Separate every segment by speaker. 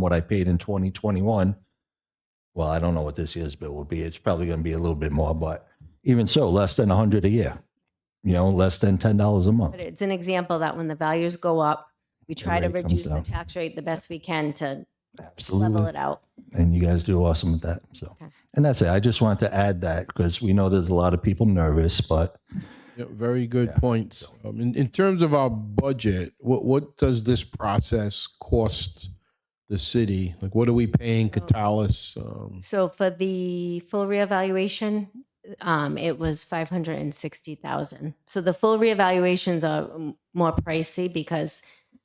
Speaker 1: what I paid in 2021. Well, I don't know what this year's bill will be. It's probably going to be a little bit more, but even so, less than 100 a year. You know, less than $10 a month.
Speaker 2: But it's an example that when the values go up, we try to
Speaker 1: rate comes
Speaker 2: reduce the
Speaker 1: down.
Speaker 2: tax rate the best we can to level
Speaker 1: Absolutely.
Speaker 2: it out.
Speaker 1: And you guys do awesome with that. So,
Speaker 2: Okay.
Speaker 1: and that's it. I just wanted to add that because we know there's a lot of people nervous, but
Speaker 3: Yeah, very good points. Um, in, in terms of our budget, what what does this process cost the city? Like, what are we paying Catalyst? Um,
Speaker 2: So for the full reevaluation, um, it was five hundred and sixty thousand. So the full reevaluations are m- more pricey because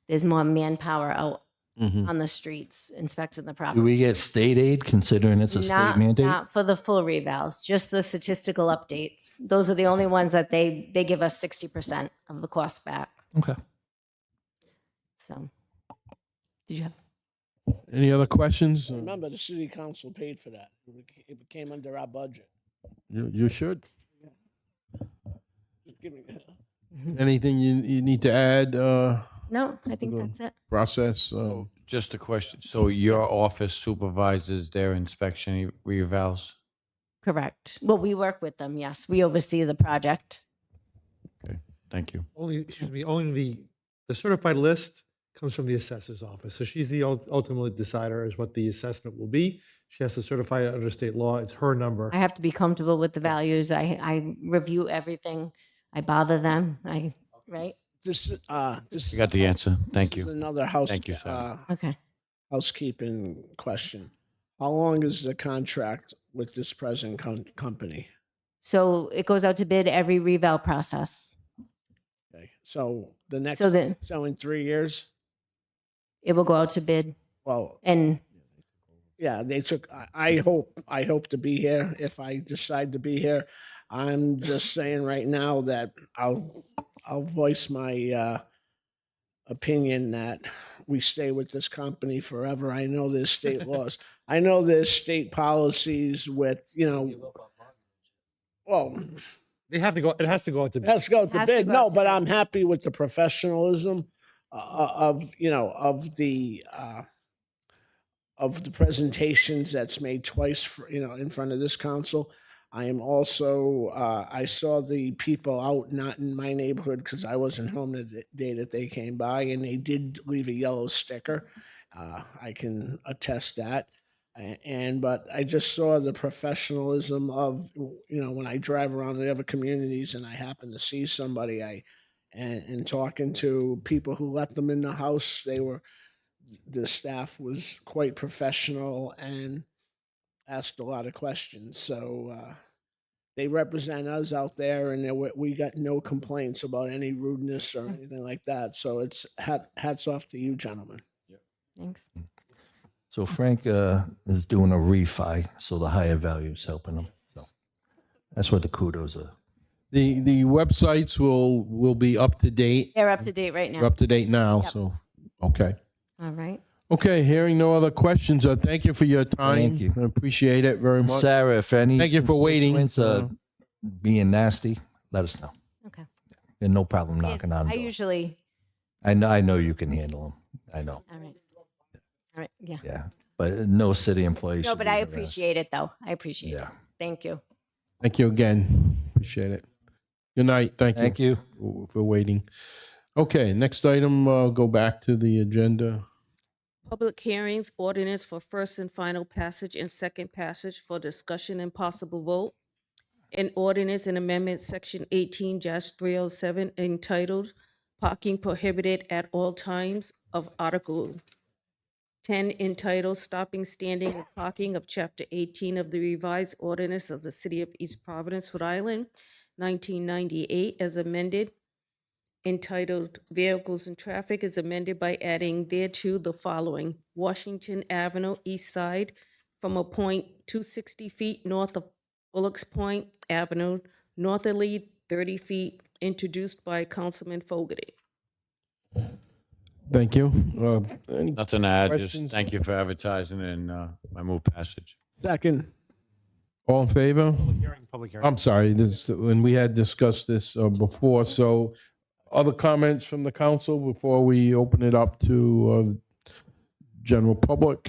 Speaker 2: there's more manpower out
Speaker 3: mm-hmm.
Speaker 2: on the streets inspecting the property.
Speaker 1: Hmm. do we get state aid considering it's a state
Speaker 2: Not-
Speaker 1: mandate?
Speaker 2: Not for the full revals, just the statistical updates. Those are the only ones that they, they give us sixty percent of the cost back,
Speaker 1: Okay.
Speaker 2: so. Did you have?
Speaker 3: Any other questions? Um, You,
Speaker 4: Remember, the city council paid for that. It bec- It came under our budget.
Speaker 3: you should.
Speaker 4: Just giving,
Speaker 3: Anything you, you need to add? Uh,
Speaker 2: No, I think
Speaker 3: No.
Speaker 2: that's it.
Speaker 3: process.
Speaker 1: Oh.
Speaker 3: Um,
Speaker 5: Just a question. So your office supervises their inspection revals?
Speaker 2: Correct. Well, we work with them, yes. We oversee the project.
Speaker 5: Thank you.
Speaker 6: Only, excuse me, only the, the certified list comes from the assessor's office. So she's the ul- ultimate decider as what the assessment will be. She has to certify it under state law. It's her number.
Speaker 2: I have to be comfortable with the values. I, I review everything. I bother them. I, right?
Speaker 4: this, uh, this.
Speaker 5: You got the answer. Thank
Speaker 4: this is
Speaker 5: you.
Speaker 4: Another house.
Speaker 5: Thank you, Sally.
Speaker 4: uh,
Speaker 2: Okay.
Speaker 4: Housekeeping question. How long is the contract with this present com- company?
Speaker 2: So it goes out to bid every reval process.
Speaker 4: Okay, So the next,
Speaker 2: So then
Speaker 4: so in three years,
Speaker 2: it will go out to bid
Speaker 4: well,
Speaker 2: and
Speaker 4: yeah, they took, I, I hope, I hope to be here if I decide to be here. I'm just saying right now that I'll, I'll voice my, uh, opinion that we stay with this company forever. I know there's state laws. I know there's state policies with, you know, well,
Speaker 6: They have to go, it has to go out to bid.
Speaker 4: Let's go to
Speaker 2: Has to
Speaker 4: bid.
Speaker 2: go
Speaker 4: No,
Speaker 2: out to
Speaker 4: but
Speaker 2: bid.
Speaker 4: I'm happy with the professionalism uh, of, you know, of the, uh, of the presentations that's made twice, for, you know, in front of this council. I am also, uh, I saw the people out, not in my neighborhood, because I wasn't home the d- day that they came by, and they did leave a yellow sticker. Uh, I can attest that. A- And, but I just saw the professionalism of, you know, when I drive around the other communities and I happen to see somebody, I, and, and talking to people who let them in the house, they were, the staff was quite professional and asked a lot of questions. So, uh, they represent us out there and there wa- we got no complaints about any rudeness or anything like that. So it's hat, hats off to you gentlemen.
Speaker 2: thanks.
Speaker 1: So Frank uh, is doing a refi, so the higher value is helping him. So that's what the kudos are.
Speaker 3: the the websites will will be up to date.
Speaker 2: They're up to date right now.
Speaker 3: Up to date now.
Speaker 2: Yep.
Speaker 3: So okay.
Speaker 2: All right.
Speaker 3: Okay, hearing no other questions, uh, thank you for your time.
Speaker 1: Thank you.
Speaker 3: I appreciate it very
Speaker 1: And
Speaker 3: much.
Speaker 1: Sarah, if any
Speaker 3: Thank you for waiting. Uh-huh.
Speaker 1: constituents are being nasty, let us know.
Speaker 2: Okay.
Speaker 1: And no problem
Speaker 2: Yeah,
Speaker 1: knocking on.
Speaker 2: I
Speaker 1: the door.
Speaker 2: usually,
Speaker 1: I know. I know you can handle them. I know.
Speaker 2: all right. All right. Yeah.
Speaker 1: Yeah, but no city employee.
Speaker 2: No,
Speaker 1: should
Speaker 2: but
Speaker 1: be
Speaker 2: I
Speaker 1: harassed.
Speaker 2: appreciate it though. I appreciate it.
Speaker 1: Yeah.
Speaker 2: Thank you.
Speaker 3: Thank you again. Appreciate it. Good night. Thank,
Speaker 1: Thank
Speaker 3: you,
Speaker 1: you.
Speaker 3: w- for waiting. Okay, next item, uh, go back to the agenda.
Speaker 7: Public hearings, ordinance for first and final passage and second passage for discussion and possible vote. An ordinance and amendment, section eighteen three oh seven entitled Parking Prohibited at All Times of Article ten entitled Stopping, Standing, and Parking of Chapter eighteen of the revised ordinance of the City of East Providence, Rhode Island, nineteen ninety-eight as amended, entitled Vehicles and Traffic is amended by adding thereto the following. Washington Avenue East Side from a point 260 feet north of Bullocks Point Avenue, northerly 30 feet, introduced by Councilman Fogarty.
Speaker 3: Thank you. Uh, any-
Speaker 5: Nothing to add. Just
Speaker 3: Questions?
Speaker 5: thank you for advertising and uh, I move passage.
Speaker 4: Second.
Speaker 3: all in favor? I'm sorry, this, when we had discussed this uh, before, so other comments from the council before we open it up to uh, general public?